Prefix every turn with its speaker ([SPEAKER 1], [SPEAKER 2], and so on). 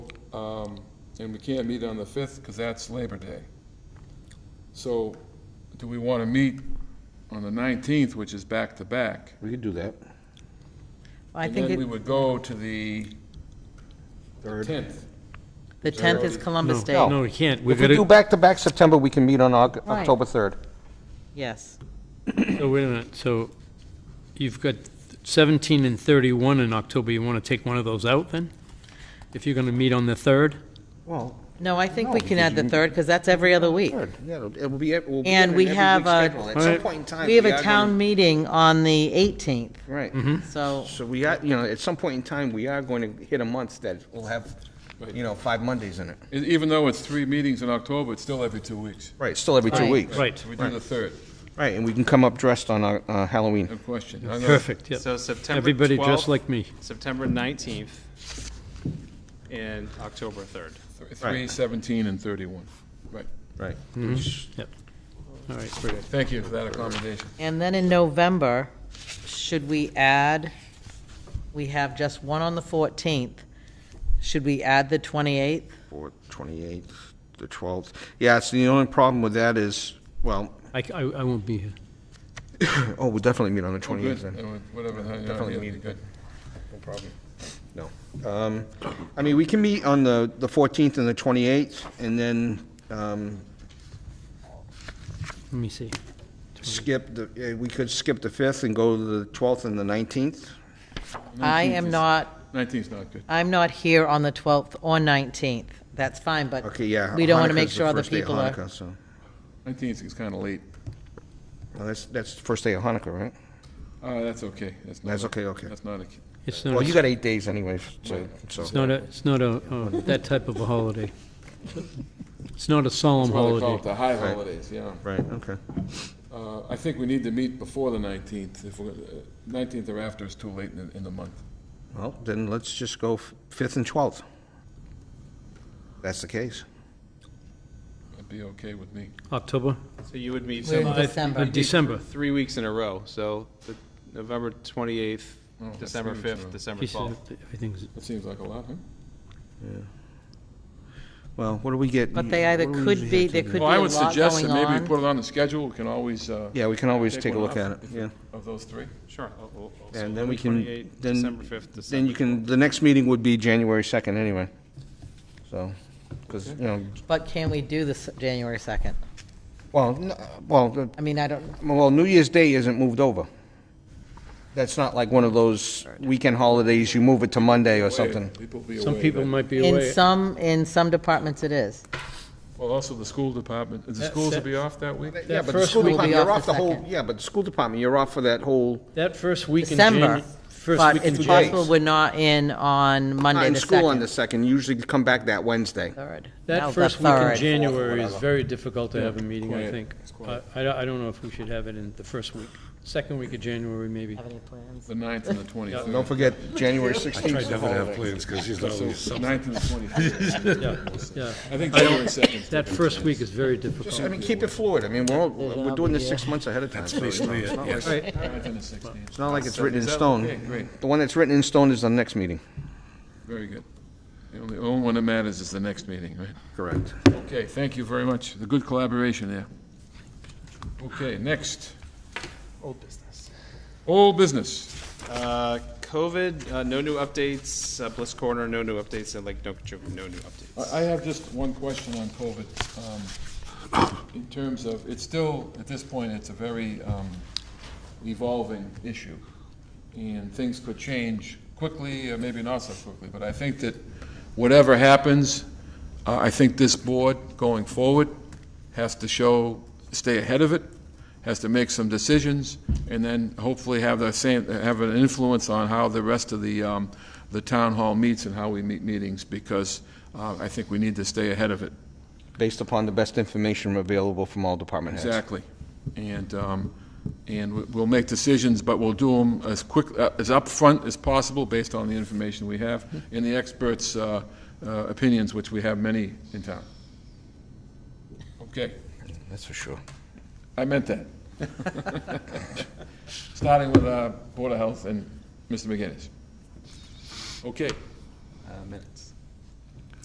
[SPEAKER 1] um, and we can't meet on the 5th because that's Labor Day. So do we want to meet on the 19th, which is back-to-back?
[SPEAKER 2] We could do that.
[SPEAKER 3] I
[SPEAKER 1] And then we
[SPEAKER 3] think
[SPEAKER 1] would go to the 10th.
[SPEAKER 3] the 10th is Columbus
[SPEAKER 2] No.
[SPEAKER 3] Day,
[SPEAKER 4] No, we can't. We're
[SPEAKER 2] If we do
[SPEAKER 4] gonna,
[SPEAKER 2] back-to-back September, we can meet on Oc-
[SPEAKER 3] Right.
[SPEAKER 2] October 3rd.
[SPEAKER 3] yes.
[SPEAKER 4] so oh, wait a minute. So you've got 17 and 31 in October. You want to take one of those out then? If you're going to meet on the 3rd?
[SPEAKER 2] Well,
[SPEAKER 3] No, I think
[SPEAKER 2] No,
[SPEAKER 3] we can
[SPEAKER 2] because
[SPEAKER 3] add the
[SPEAKER 2] you-
[SPEAKER 3] 3rd, because that's every other week.
[SPEAKER 2] yeah, it'll- it will be, it will be.
[SPEAKER 3] And
[SPEAKER 2] in
[SPEAKER 3] we
[SPEAKER 2] every
[SPEAKER 3] have
[SPEAKER 2] week's
[SPEAKER 3] a-
[SPEAKER 2] schedule. At some
[SPEAKER 4] Alright.
[SPEAKER 2] point in time.
[SPEAKER 3] We have a
[SPEAKER 2] are
[SPEAKER 3] town meeting on the 18th,
[SPEAKER 2] gonna- Right.
[SPEAKER 3] so,
[SPEAKER 2] So we are, you know, at some point in time, we are going to hit a month that will have, you know, five Mondays in it.
[SPEAKER 1] E- Even though it's three meetings in October, it's still every two weeks.
[SPEAKER 2] Right, still every
[SPEAKER 3] Right.
[SPEAKER 2] two weeks.
[SPEAKER 4] Right.
[SPEAKER 1] So we do the 3rd,
[SPEAKER 2] Right, and we can come up dressed on uh, uh, Halloween.
[SPEAKER 1] no question. I'm gonna-
[SPEAKER 4] Perfect, yep.
[SPEAKER 5] So September
[SPEAKER 4] Everybody dressed
[SPEAKER 5] 12th,
[SPEAKER 4] like me.
[SPEAKER 5] September 19th and October 3rd.
[SPEAKER 1] th- 3, 17, and 31. Right.
[SPEAKER 2] Right.
[SPEAKER 4] Yep. All right.
[SPEAKER 1] Thank you for that accommodation.
[SPEAKER 3] and then in November, should we add, we have just one on the 14th, should we add the 28th?
[SPEAKER 2] Or 28th, the 12th. Yeah, it's the only problem with that is, well,
[SPEAKER 4] I, c- I- I won't be here.
[SPEAKER 2] oh, we'll definitely meet on the
[SPEAKER 1] Oh, good.
[SPEAKER 2] 28th then.
[SPEAKER 1] Uh, Whatever. the hell, yeah,
[SPEAKER 2] Definitely
[SPEAKER 1] yeah,
[SPEAKER 2] meet.
[SPEAKER 1] good.
[SPEAKER 2] No problem. No. Um, I mean, we can meet on the, the 14th and the 28th, and then um,
[SPEAKER 4] Let me see.
[SPEAKER 2] skip the, eh, we could skip the 5th and go to the 12th and the 19th.
[SPEAKER 3] I
[SPEAKER 1] 19th
[SPEAKER 3] am
[SPEAKER 1] is-
[SPEAKER 3] not,
[SPEAKER 1] 19th is not good.
[SPEAKER 3] I'm not here on the 12th or 19th, that's fine, but
[SPEAKER 2] Okay, yeah.
[SPEAKER 3] we don't want to make
[SPEAKER 2] Hanukkah's the
[SPEAKER 3] sure other
[SPEAKER 2] first day of
[SPEAKER 3] people are,
[SPEAKER 2] Hanukkah, so-
[SPEAKER 1] 19th is kind of late.
[SPEAKER 2] Well, that's, that's the first day of Hanukkah, right?
[SPEAKER 1] Uh, that's okay. not
[SPEAKER 2] That's
[SPEAKER 1] a-
[SPEAKER 2] okay, okay.
[SPEAKER 1] That's not a,
[SPEAKER 4] It's
[SPEAKER 2] Well,
[SPEAKER 4] not,
[SPEAKER 2] you
[SPEAKER 4] a-
[SPEAKER 2] got eight days anyway, so.
[SPEAKER 4] it's not a, it's not a, uh, that type of a holiday. It's not a solemn
[SPEAKER 1] that's why they call it
[SPEAKER 4] holiday.
[SPEAKER 1] the high holidays, yeah.
[SPEAKER 2] Right, okay.
[SPEAKER 1] Uh, I think we need to meet before the 19th. If we're, uh, 19th or after is too late in, the- in the month.
[SPEAKER 2] Well, then let's just go f- 5th and 12th. That's the case.
[SPEAKER 1] It'd be okay with me.
[SPEAKER 4] October?
[SPEAKER 5] So you would meet.
[SPEAKER 3] We're in
[SPEAKER 5] so-
[SPEAKER 4] I-
[SPEAKER 3] December.
[SPEAKER 4] uh, December.
[SPEAKER 5] Three weeks in a row, so the November 28th,
[SPEAKER 1] Oh, that's
[SPEAKER 5] December
[SPEAKER 1] three weeks in a
[SPEAKER 5] 5th,
[SPEAKER 1] row.
[SPEAKER 5] December
[SPEAKER 4] He said
[SPEAKER 5] 12th.
[SPEAKER 4] everything's-
[SPEAKER 1] That seems like a lot, huh?
[SPEAKER 2] Well, what do we get?
[SPEAKER 3] but they either
[SPEAKER 2] what do we
[SPEAKER 3] could
[SPEAKER 2] usually
[SPEAKER 3] be,
[SPEAKER 2] have to
[SPEAKER 3] there
[SPEAKER 2] do?
[SPEAKER 3] could be a
[SPEAKER 1] Well, I would
[SPEAKER 3] lot
[SPEAKER 1] suggest
[SPEAKER 3] going
[SPEAKER 1] that maybe we
[SPEAKER 3] on.
[SPEAKER 1] put it on the schedule. We can always, uh.
[SPEAKER 2] Yeah, we can always take a
[SPEAKER 1] one
[SPEAKER 2] look at it,
[SPEAKER 1] off if-
[SPEAKER 2] yeah.
[SPEAKER 1] Of those three.
[SPEAKER 5] Sure. I'll- I'll- I'll- so
[SPEAKER 2] And then we
[SPEAKER 5] 28th,
[SPEAKER 2] can,
[SPEAKER 5] December
[SPEAKER 2] then,
[SPEAKER 5] 5th,
[SPEAKER 2] then
[SPEAKER 5] December.
[SPEAKER 2] you can, the next meeting would be January 2nd anyway. So, because, you know,
[SPEAKER 3] But can we do this January 2nd?
[SPEAKER 2] well, n- well, the-
[SPEAKER 3] I mean, I don't,
[SPEAKER 2] well, New Year's Day isn't moved over. That's not like one of those weekend holidays, you move it to Monday or something.
[SPEAKER 1] People will be
[SPEAKER 4] Some
[SPEAKER 1] away
[SPEAKER 4] people
[SPEAKER 1] then.
[SPEAKER 4] might be
[SPEAKER 3] in
[SPEAKER 4] away.
[SPEAKER 3] some, in some departments it is.
[SPEAKER 1] Well, also the school department, is the
[SPEAKER 4] That-
[SPEAKER 1] schools will
[SPEAKER 4] that-
[SPEAKER 1] be off that week?
[SPEAKER 2] Yeah, but the
[SPEAKER 4] first
[SPEAKER 2] school
[SPEAKER 3] week-
[SPEAKER 2] department,
[SPEAKER 3] We'll be
[SPEAKER 2] you're
[SPEAKER 3] off
[SPEAKER 2] off the
[SPEAKER 3] the
[SPEAKER 2] whole,
[SPEAKER 3] second.
[SPEAKER 2] yeah, but the school department, you're off for that whole,
[SPEAKER 4] That first week in January.
[SPEAKER 3] December, but it's
[SPEAKER 2] January.
[SPEAKER 3] possible we're not in on Monday
[SPEAKER 2] in
[SPEAKER 3] the
[SPEAKER 2] school on the
[SPEAKER 3] 2nd.
[SPEAKER 2] 2nd, usually come back that Wednesday.
[SPEAKER 3] Third. No,
[SPEAKER 4] That
[SPEAKER 3] the
[SPEAKER 4] first week in
[SPEAKER 3] third.
[SPEAKER 4] January is very difficult to have a meeting, I
[SPEAKER 1] quiet.
[SPEAKER 4] think. I, I don't- I don't know if we should have it in the first week. Second week of January, maybe.
[SPEAKER 3] Have any plans?
[SPEAKER 1] The 9th and the 23rd.
[SPEAKER 2] Don't forget, January 16th.
[SPEAKER 6] I definitely have plans because he's not always
[SPEAKER 1] So 9th and the 23rd.
[SPEAKER 4] Yeah, yeah.
[SPEAKER 1] I think January 2nd. 's
[SPEAKER 4] That
[SPEAKER 1] good.
[SPEAKER 4] first week is very
[SPEAKER 2] Just, I
[SPEAKER 4] difficult.
[SPEAKER 2] mean, keep it fluid. I mean, we're, all- we're doing this six months ahead of time. so it's not-
[SPEAKER 6] basically it,
[SPEAKER 2] it's not like-
[SPEAKER 6] yes.
[SPEAKER 4] Right.
[SPEAKER 1] 9th and the 16th.
[SPEAKER 2] It's not like it's written in
[SPEAKER 1] Is that okay?
[SPEAKER 2] stone.
[SPEAKER 1] Great,
[SPEAKER 2] The one that's written in stone is the next meeting.
[SPEAKER 1] very good. The only, only one that matters is the next meeting, right?
[SPEAKER 2] Correct.
[SPEAKER 1] Okay, thank you very much. The good collaboration there. Okay, next,
[SPEAKER 5] Old business.
[SPEAKER 1] old business.
[SPEAKER 5] Uh, COVID, uh, no new updates, uh, Bliss Corner, no new updates, and Lake Nokichoke, no new updates.
[SPEAKER 1] I I have just one question on COVID. um, In terms of, it's still, at this point, it's a very um, evolving issue. And things could change quickly, or maybe not so quickly. But I think that whatever happens, uh, I think this board going forward has to show, stay ahead of it, has to make some decisions, and then hopefully have the same, have an influence on how the rest of the, um, the town hall meets and how we meet meetings, because uh, I think we need to stay ahead of it.
[SPEAKER 2] Based upon the best information available from all department heads.
[SPEAKER 1] Exactly. And, um, and we- we'll make decisions, but we'll do them as quick, uh, as upfront as possible, based on the information we have, and the experts' uh, uh, opinions, which we have many in town. Okay.
[SPEAKER 2] That's for sure.
[SPEAKER 1] I meant that. Starting with uh, Board of Health and Mr. McGinnis. Okay.
[SPEAKER 2] Uh, minutes.